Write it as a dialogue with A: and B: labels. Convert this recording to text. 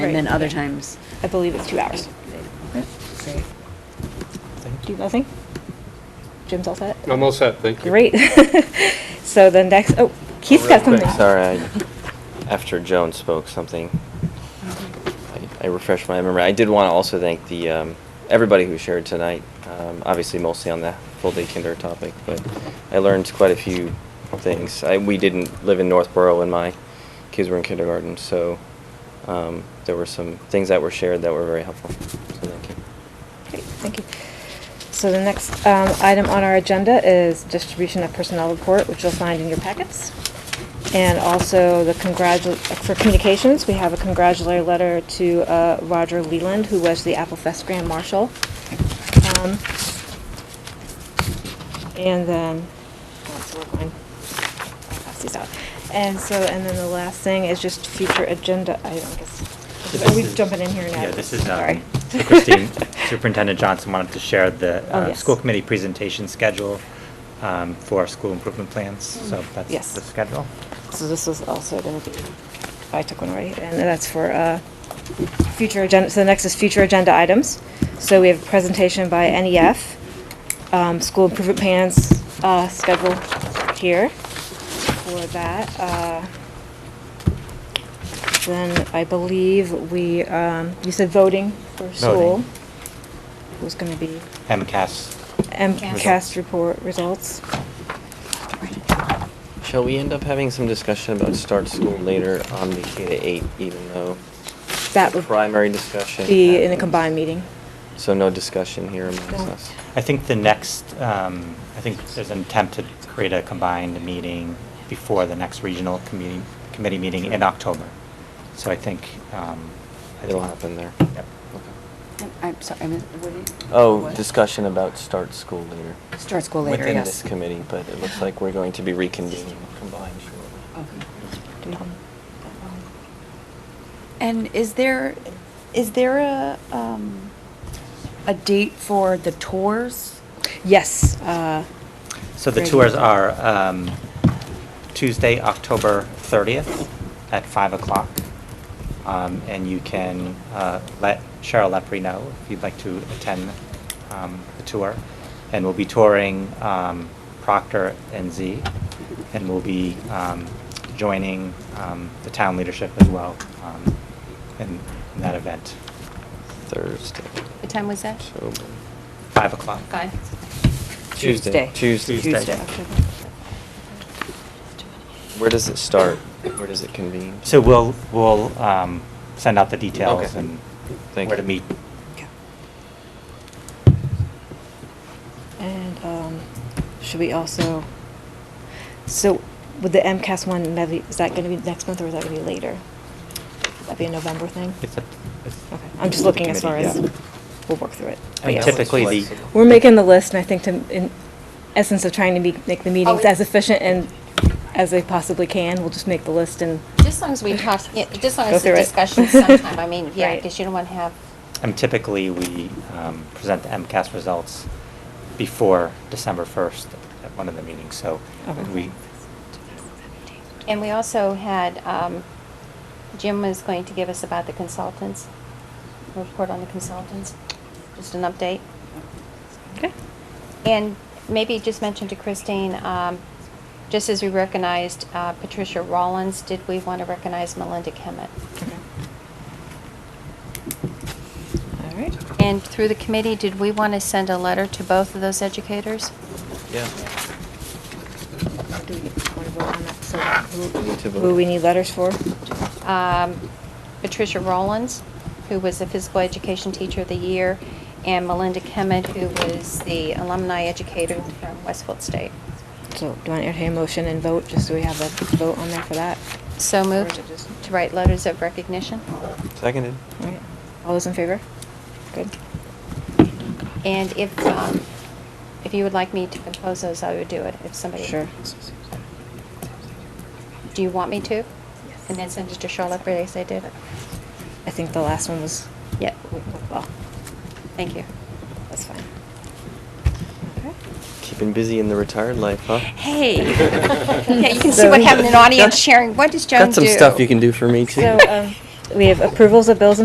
A: And then
B: Right.
A: other times,
B: I believe it's two hours. Do you nothing? Jim's all set?
C: I'm all set, thank you.
B: Great. So the next, oh, Keith's got
C: Real quick,
B: something.
D: Sorry, I, after Joan spoke something, I, I refreshed my memory. I did want to also thank the um, everybody who shared tonight. Um, obviously, mostly on the full day kinder topic, but I learned quite a few things. I, we didn't live in Northborough when my kids were in kindergarten, so um, there were some things that were shared that were very helpful. So thank you.
B: Great, thank you. So the next um, item on our agenda is distribution of personnel report, which you'll find in your packets. And also the congratu, for communications, we have a congratulatory letter to uh, Roger Leland, who was the Apple Fest Grand Marshal. Um, And then, that's one line. I'll pass these out. And so, and then the last thing is just future agenda items. Are we Oh, jumping in here now?
E: Yeah, this is,
B: Sorry.
E: um, so Christine, Superintendent Johnson wanted to share the,
B: Oh,
E: uh,
B: yes.
E: school committee presentation schedule, um, for school improvement plans, so
B: Mm, Yes.
E: that's the schedule.
B: So this is also going to be, I took one already, and that's for uh, future agenda, so the next is future agenda items. So we have a presentation by NEF, um, school improvement plans uh, schedule here for that. uh, Then I believe we, um, you said voting for school
E: Voting.
B: was going to be
E: MCAS,
B: MCAS report results.
D: Shall we end up having some discussion about start school later on the K to eight, even though
B: That would
D: primary discussion
B: be in a
D: happens?
B: combined meeting.
D: So no discussion here amongst
B: No.
D: us.
E: I think the next, um, I think there's an attempt to create a combined meeting before the next regional committee, committee meeting in October. So I think, um. I
D: It'll
E: think-
D: happen there.
E: Yep.
A: I'm- I'm sorry, I missed, what did you?
D: Oh,
A: what?
D: discussion about start school later.
A: Start school later,
D: Within
A: yes.
D: this committee, but it looks like we're going to be reconvening combined
A: Oh.
D: shortly.
A: And is there, is there a, um, a date for the tours?
B: Yes, uh,
E: So the
A: Great.
E: tours are um, Tuesday, October 30th at 5 o'clock. Um, And you can uh, let Cheryl Lepre know if you'd like to attend um, the tour. And we'll be touring um, Procter and Z, and we'll be um, joining um, the town leadership as well um, in in that event,
D: Thursday.
F: What time was that?
D: October.
E: 5 o'clock.
F: Five.
D: Tuesday.
E: Tuesday.
D: Tuesday. Where does it start? Where does it convene?
E: So we'll, we'll um, send out the details
D: Okay.
E: and
D: Thank
E: where to
D: you.
E: meet.
B: and um, should we also, so with the MCAS one medley, is that going to be next month or is that going to be later? Would that be a November thing?
E: It's a- it's-
B: Okay, I'm
E: it's
B: just
E: a
B: looking as far
E: committee,
B: as,
E: yeah.
B: we'll work through it. But
E: And
B: yes.
E: typically the-
D: Flexible.
B: We're making the list and I think to, in essence of trying to be- make the meetings
F: we-
B: as efficient and as they possibly can, we'll just make the list and.
F: Just as long as we talk, yeah, just as long
B: Go
F: as the
B: through it.
F: discussion sometime, I mean, yeah,
B: Right.
F: because you don't want to have,
E: And typically, we um, present the MCAS results before December 1st at one of the meetings, so
B: Okay.
E: we,
F: and we also had, um, Jim was going to give us about the consultants, report on the consultants, just an update.
B: Okay.
F: And maybe just mention to Christine, um, just as we recognized uh, Patricia Rollins, did we want to recognize Melinda Kemet?
B: All right.
F: And through the committee, did we want to send a letter to both of those educators?
D: Yeah.
B: Do we want to vote on that? So who-
D: We need to
B: Who
D: vote.
B: we need letters for?
F: um, Patricia Rollins, who was the physical education teacher of the year, and Melinda Kemet, who was the alumni educator from Westfield State.
B: So do you want to entertain a motion and vote, just so we have a vote on there for that?
F: So moved
B: Or just-
F: to write letters of recognition.
D: Seconded.
B: All right. All those in favor? Good.
F: And if, um, if you would like me to compose those, I would do it if somebody.
B: Sure.
F: Do you want me to? And then send it to Charlotte Bray, as I did it.
B: I think the last one was,
F: Yeah,
B: well,
F: thank you.
B: that's fine. Okay.
D: Keeping busy in the retired life, huh?
F: Hey. Yeah, you can see what happened in audience sharing. What does Joan
D: Got
F: do?
D: some stuff you can do for me too.
B: So, um, We have approvals of bills and